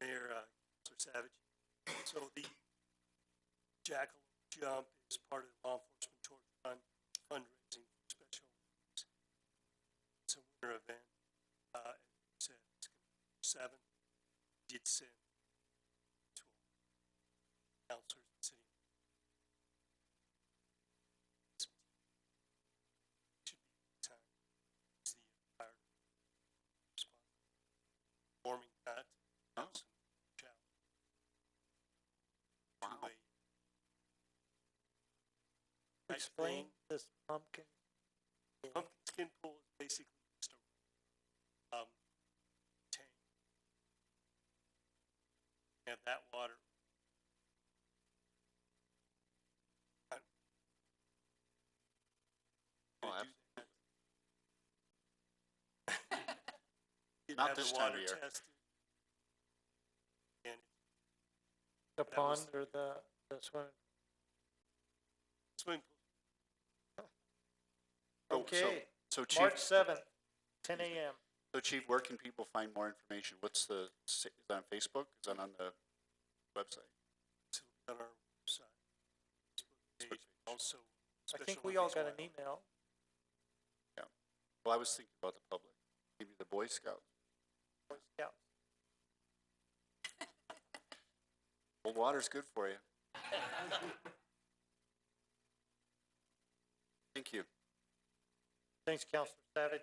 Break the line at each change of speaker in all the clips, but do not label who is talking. uh, Savage. So the jackal jump is part of the law enforcement torture fund fundraising for special Olympics. It's a winter event. Uh, as you said, it's gonna be seven. Did send to all counselors in the city. Should be time. It's the fire response. Warming that.
Oh.
Challenge.
Wow.
Two-way type
Explain
thing.
this pumpkin.
Pumpkin skin pool is basically just a, um, tank. Have that water. I-
Oh,
Gonna do
abs-
that. You'd
Not
have the
this time of
water
year.
tested. And
The
that was
pond or the, the swimming.
swimming pool,
Oh, so-
Okay,
So
March
chief,
seventh, ten AM.
so chief, where can people find more information? What's the, is that on Facebook? Is that on the website?
it's on our website. Facebook page, Also.
I think
Special
we all
Olympics
got an
Wild.
email.
Well, I was thinking about the public, maybe the Boy Scouts,
Boy Scout.
Cold water's good for you. Thank you.
Thanks, Counselor Savage.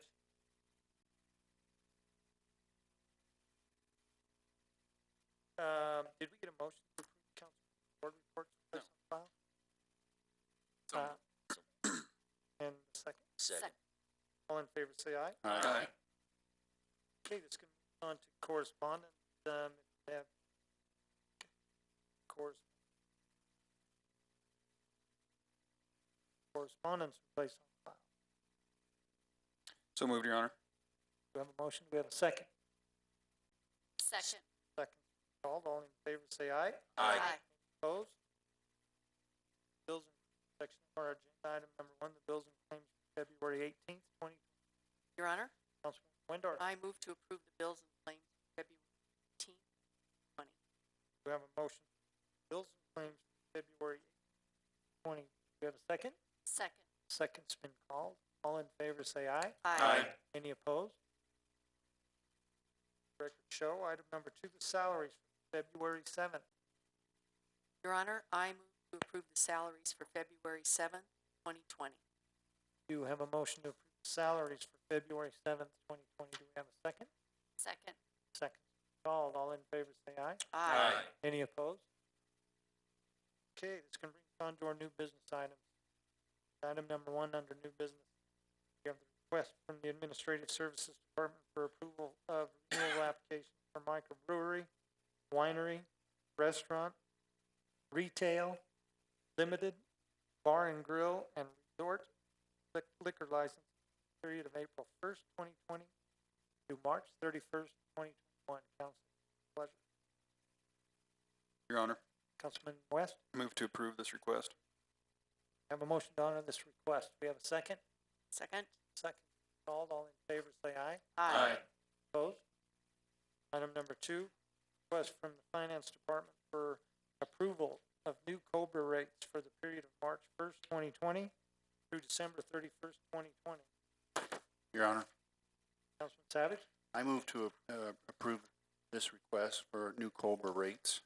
Um, did we get a motion to approve council board reports?
No.
placed on file? Uh, And a second,
Second.
all in favor, say aye.
All right.
Okay, this can move on to correspondence, um, if we have corres- correspondence placed on file.
So moved, Your Honor.
Do we have a motion? Do we have a second?
Second.
Second called, all in favor, say aye. Opposed? Bills and section our agenda item number one, the bills and claims for February eighteenth, twenty,
Your Honor,
Councilman Windor.
I move to approve the bills and claims for February eighteenth.
We have a motion. Bills and claims for February twenty. Do we have a second?
Second.
Second's been called. All in favor, say aye.
Aye.
Any opposed? Record show, item number two, the salaries for February seventh.
Your Honor, I move to approve the salaries for February seventh, twenty twenty.
Do you have a motion to approve salaries for February seventh, twenty twenty? Do we have a second?
Second.
Second's been called. All in favor, say aye.
Aye.
Any opposed? Okay, this can bring us on to our new business items. Item number one under new business. We have the request from the Administrative Services Department for approval of renewal application for microbrewery, winery, restaurant, retail, limited, bar and grill, and resort lic- liquor license period of April first, twenty twenty through March thirty-first, twenty twenty-one. Council, pleasure.
Your Honor,
Councilman West?
move to approve this request.
Have a motion to honor this request. We have a second?
Second.
Second. Called, all in favor, say aye.
Aye.
Opposed? Item number two, request from the Finance Department for approval of new Cobra rates for the period of March first, twenty twenty through December thirty-first, twenty twenty.
Your Honor,
Councilman Savage,
I move to, uh, approve this request for new Cobra rates.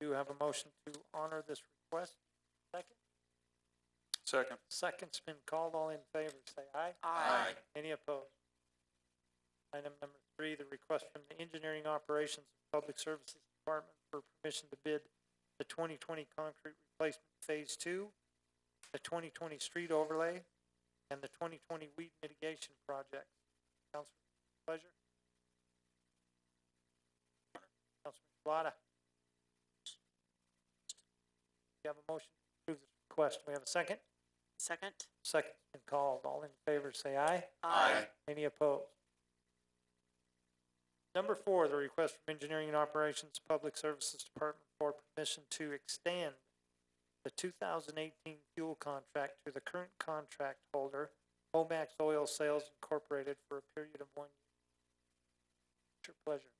do you have a motion to honor this request? Second?
Second.
Second's been called. All in favor, say aye.
Aye.
Any opposed? Item number three, the request from the Engineering Operations and Public Services Department for permission to bid the twenty twenty concrete replacement phase two, the twenty twenty street overlay, and the twenty twenty weed mitigation project. Councilman, pleasure? Councilman Shalata? You have a motion to approve this request. Do we have a second?
Second.
Second's been called. All in favor, say aye. Any opposed? Number four, the request from Engineering and Operations Public Services Department for permission to extend the two thousand eighteen fuel contract to the current contract holder, Omax Oil Sales Incorporated, for a period of one year. It's your pleasure.